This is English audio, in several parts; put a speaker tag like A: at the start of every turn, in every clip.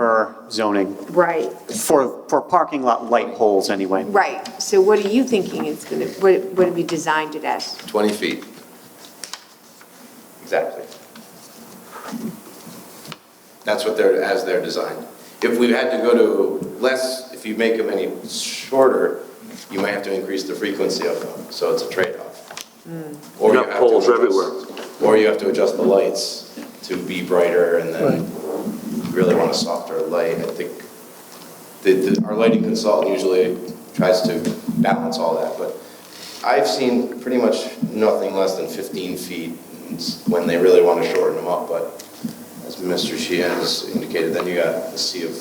A: per zoning,
B: Right,
A: for, for parking lot light poles anyway.
B: right. So what are you thinking it's going to, what, what have you designed it as?
C: 20 feet. Exactly. That's what they're, as they're designed. If we had to go to less, if you make them any shorter, you might have to increase the frequency of them, so it's a trade-off. Or
D: You got
C: have to
D: poles
C: adjust-
D: everywhere.
C: Or you have to adjust the lights to be brighter, and then if you really want a softer light, I think. The, the, our lighting consultant usually tries to balance all that, but I've seen pretty much nothing less than 15 feet when they really want to shorten them up, but as Mr. Sheehan has indicated, then you got a sea of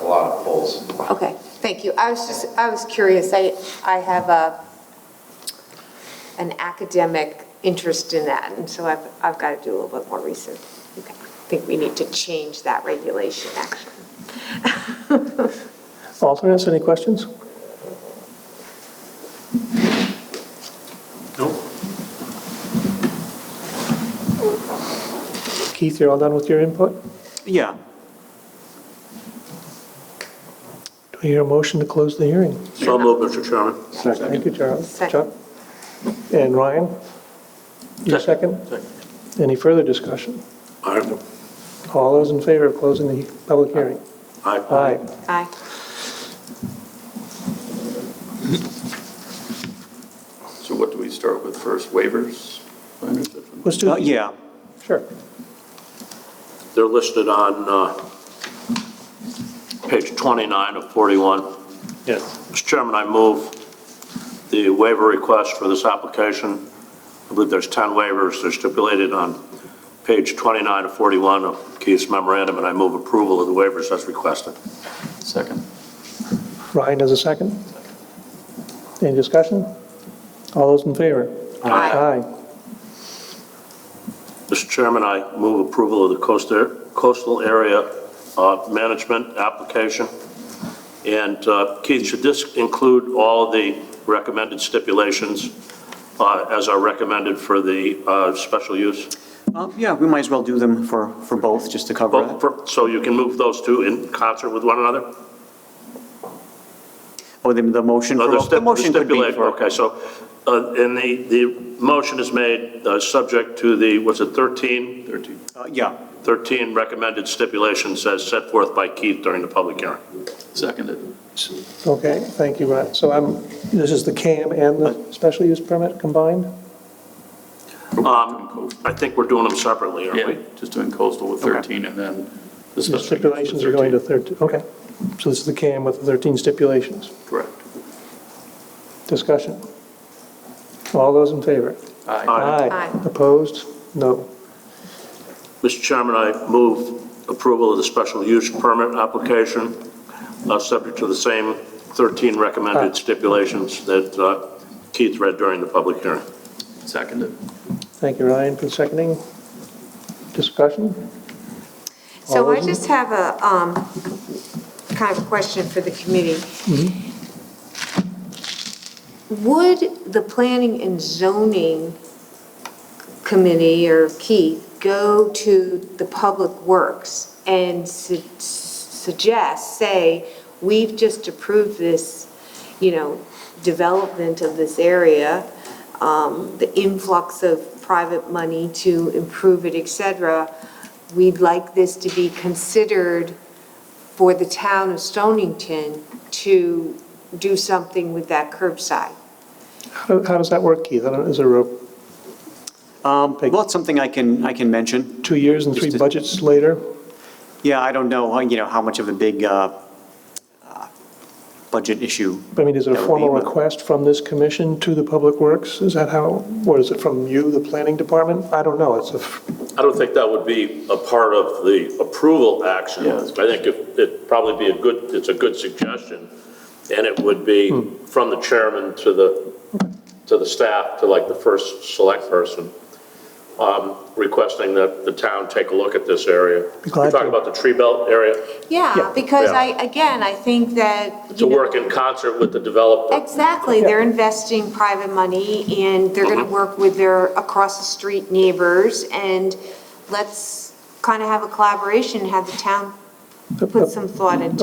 C: a lot of poles.
B: Okay, thank you. I was just, I was curious. I, I have a, an academic interest in that, and so I've, I've got to do a little bit more research. Okay. I think we need to change that regulation, actually.
E: Alternates, any questions? Keith, you're all done with your input?
A: Yeah.
E: Do I hear a motion to close the hearing?
D: So moved, Mr. Chairman.
E: Thank you, Charles. Chuck?
B: Second.
E: And Ryan? Your
D: Second.
E: second? Any further discussion?
D: Aye.
E: All those in favor of closing the public hearing?
D: Aye.
E: Aye.
B: Aye.
F: So what do we start with first, waivers? I understood from-
E: Let's
A: Uh,
E: do,
A: Yeah,
E: sure.
D: They're listed on uh, page 29 of 41.
E: Yes.
D: Mr. Chairman, I move the waiver request for this application. I believe there's 10 waivers. They're stipulated on page 29 of 41 of Keith's memorandum, and I move approval of the waivers as requested.
F: Second.
E: Ryan does a second. Any discussion? All those in favor?
B: Aye.
E: Aye.
D: Mr. Chairman, I move approval of the coastal coastal area uh, management application. And uh, Keith, should this include all the recommended stipulations uh, as are recommended for the uh, special use?
A: Um, yeah, we might as well do them for, for both, just to cover
D: Well,
A: it.
D: for- So you can move those two in concert with one another?
A: Oh, the, the motion for,
D: No,
A: both-
D: the
A: the
D: stip- the
A: motion could be
D: stipulation,
A: for,
D: okay, so, uh, and the, the motion is made uh, subject to the, was it 13?
F: 13.
A: uh, yeah,
D: 13 recommended stipulations as set forth by Keith during the public hearing.
F: Seconded.
E: Okay, thank you, Ryan. So I'm, this is the CAM and the special use permit combined?
D: Um, I think we're doing them separately, aren't
F: Yeah,
D: we?
F: just doing coastal with 13 and then the
E: The
F: special use
E: stipulations
F: with
E: are going to
F: 13.
E: 13, okay. So this is the CAM with the 13 stipulations.
F: Correct.
E: Discussion. All those in favor?
F: Aye.
B: Aye.
E: Opposed? No.
D: Mr. Chairman, I move approval of the special use permit application, uh, subject to the same 13 recommended stipulations that uh, Keith read during the public hearing.
F: Seconded.
E: Thank you, Ryan, for seconding. Discussion?
B: So
E: All
B: I
E: those in-
B: just have a, um, kind of question for the committee. Would the planning and zoning committee or Keith go to the public works and su- suggest, say, we've just approved this, you know, development of this area, um, the influx of private money to improve it, et cetera, we'd like this to be considered for the town of Stonington to do something with that curbside.
E: How how does that work, Keith? I don't, is there a
A: um, well, it's something I can, I can mention.
E: two years and three
A: Just a-
E: budgets later?
A: Yeah, I don't know, uh, you know, how much of a big, uh, uh, budget issue.
E: I mean, is it
A: that would
E: a
A: be,
E: formal
A: but-
E: request from this commission to the Public Works? Is that how, or is it from you, the planning department? I don't know, it's a,
D: I don't think that would be a part of the approval action. I
F: Yeah.
D: think it- it'd probably be a good, it's a good suggestion, and it would be
E: Hmm.
D: from the chairman to the, to the staff, to like the first select person, um, requesting that the town take a look at this area.
E: Be glad
D: You're talking
E: to.
D: about the tree belt area,
B: Yeah,
E: Yeah.
B: because
D: Yeah.
B: I, again, I think that,
D: to
B: you know.
D: work in concert with the developer.
B: Exactly, they're investing private money and they're
D: Mm-hmm.
B: gonna work with their across-the-street neighbors and let's kind of have a collaboration, have the town
E: The-
B: put
E: the-
B: some thought into